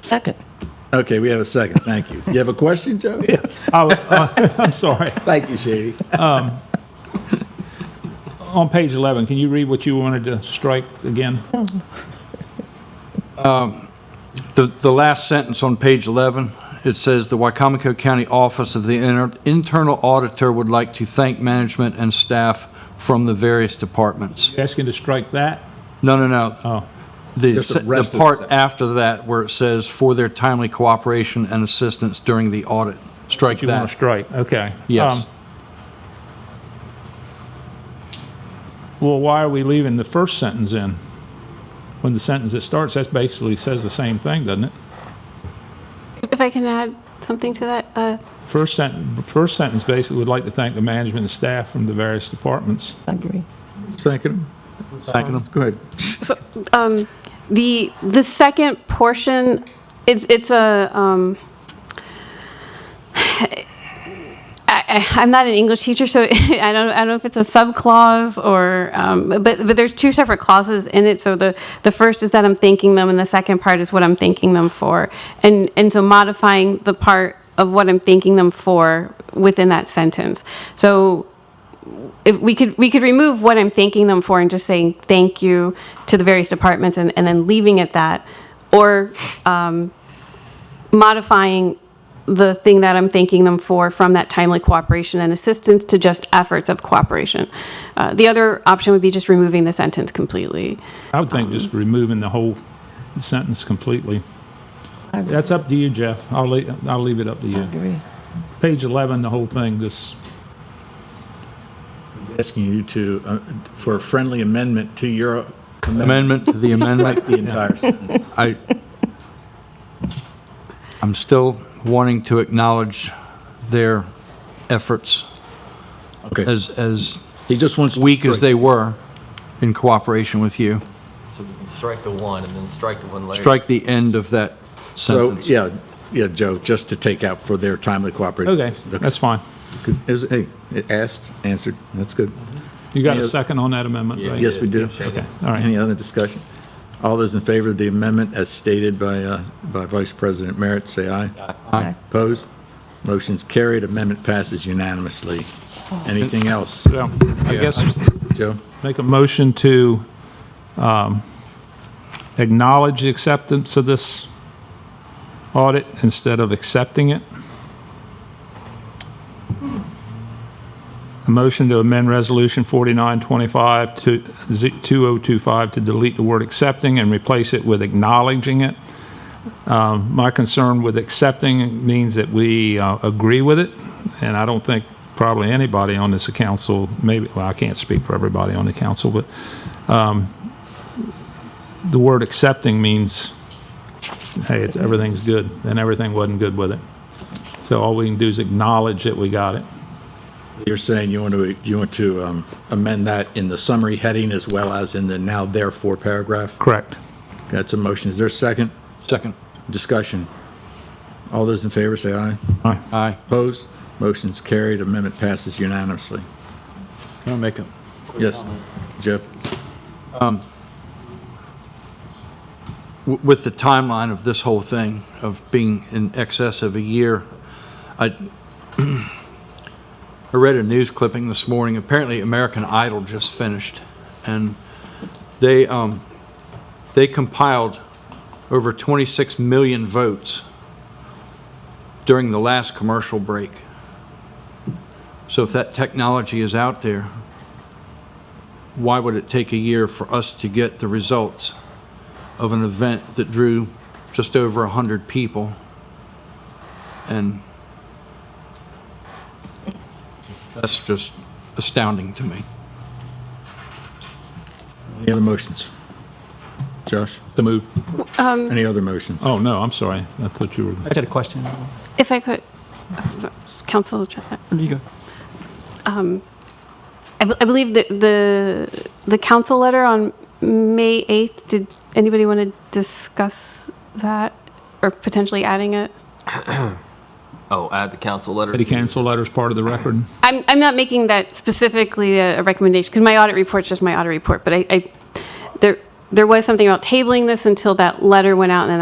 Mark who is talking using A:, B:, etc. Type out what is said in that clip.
A: Second.
B: Okay, we have a second. Thank you. You have a question, Joe?
C: Yes. I, was- uh, I'm sorry.
B: Thank you, Shady.
C: On page 11, can you read what you wanted to strike again?
D: The, the last sentence on page 11, it says, "The Wycomico County Office of the Inter- Internal Auditor would like to thank management and staff from the various departments."
C: You Asking to strike that?
D: No, no, no.
C: Oh.
D: The,
B: Just the
D: se- the
B: rest of the
D: part
B: sentence.
D: after that where it says, "For their timely cooperation and assistance during the audit." Strike
C: You want to
D: that.
C: strike, okay.
D: Yes.
C: Um, Well, why are we leaving the first sentence in? When the sentence that starts, that basically says the same thing, doesn't it?
E: If I can add something to that, uh,
C: First sentence, first sentence basically would like to thank the management and staff from the various departments.
A: Agree.
B: Second,
D: Thank
C: um,
D: you.
B: go ahead.
E: so, um, the, the second portion, it's, it's a, um, I, I- I'm not an English teacher, so I don't, I don't know if it's a subclause or, um, but, but there's two separate clauses in it. So the, the first is that I'm thanking them, and the second part is what I'm thanking them for. And, and so modifying the part of what I'm thanking them for within that sentence. So if we could, we could remove what I'm thanking them for and just saying thank you to the various departments and, and then leaving it that. Or, um, modifying the thing that I'm thanking them for from that timely cooperation and assistance to just efforts of cooperation. Uh, the other option would be just removing the sentence completely.
C: I would think just removing the whole sentence completely.
A: I agree.
C: That's up to you, Jeff. I'll leave, I'll leave it up to you.
A: Agree.
C: Page 11, the whole thing, just
B: Asking you to, uh, for a friendly amendment to your amendment,
D: Amendment to the amendment.
B: like the entire sentence.
D: I, I'm still wanting to acknowledge their efforts
B: Okay,
D: as, as
B: he just wants. to
D: weak as
B: strike.
D: they were in cooperation with you.
F: So we can strike the one and then strike the one later.
D: Strike the end of that
B: So,
D: sentence.
B: yeah, yeah, Joe, just to take out for their timely cooperation.
C: Okay, that's fine.
B: Good. Is, hey, it asked, answered, that's good.
C: You got a
B: Yes.
C: second on that amendment,
F: Yeah.
C: right?
B: Yes, we do.
C: Okay, all right.
B: Any other discussion? All those in favor of the amendment as stated by, uh, by Vice President Merritt, say aye.
A: Aye.
B: Opposed? Motion's carried, amendment passes unanimously. Anything else,
C: Well, I guess
B: Joe?
C: make a motion to um, acknowledge the acceptance of this audit instead of accepting it. A motion to amend Resolution 4925 to z- 2025 to delete the word accepting and replace it with acknowledging it. Um, My concern with accepting means that we uh, agree with it, and I don't think probably anybody on this council, maybe, well, I can't speak for everybody on the council, but um, the word accepting means, hey, it's, everything's good, and everything wasn't good with it. So all we can do is acknowledge that we got it.
B: You're saying you want to, you want to um, amend that in the summary heading as well as in the now therefore paragraph?
C: Correct.
B: That's a motion. Is there a second
D: Second.
B: discussion? All those in favor say aye.
D: Aye.
B: Opposed? Motion's carried, amendment passes unanimously.
D: Can I make a,
B: Yes, Jeff?
D: w- with the timeline of this whole thing, of being in excess of a year, I, I read a news clipping this morning, apparently American Idol just finished, and they, um, they compiled over 26 million votes during the last commercial break. So if that technology is out there, why would it take a year for us to get the results? of an event that drew just over 100 people. And that's just astounding to me.
B: Any other motions? Josh,
C: The move,
B: any other motions?
C: oh, no, I'm sorry. I thought you were,
G: I got a question.
E: If I could, uh, Council,
G: You go.
E: I be- I believe that the, the council letter on May 8th, did anybody want to discuss that or potentially adding it?
F: Oh, add the council letter.
C: the cancel letter's part of the record.
E: I'm, I'm not making that specifically a a recommendation, because my audit report's just my audit report, but I, I, there, there was something about tabling this until that letter went out, and then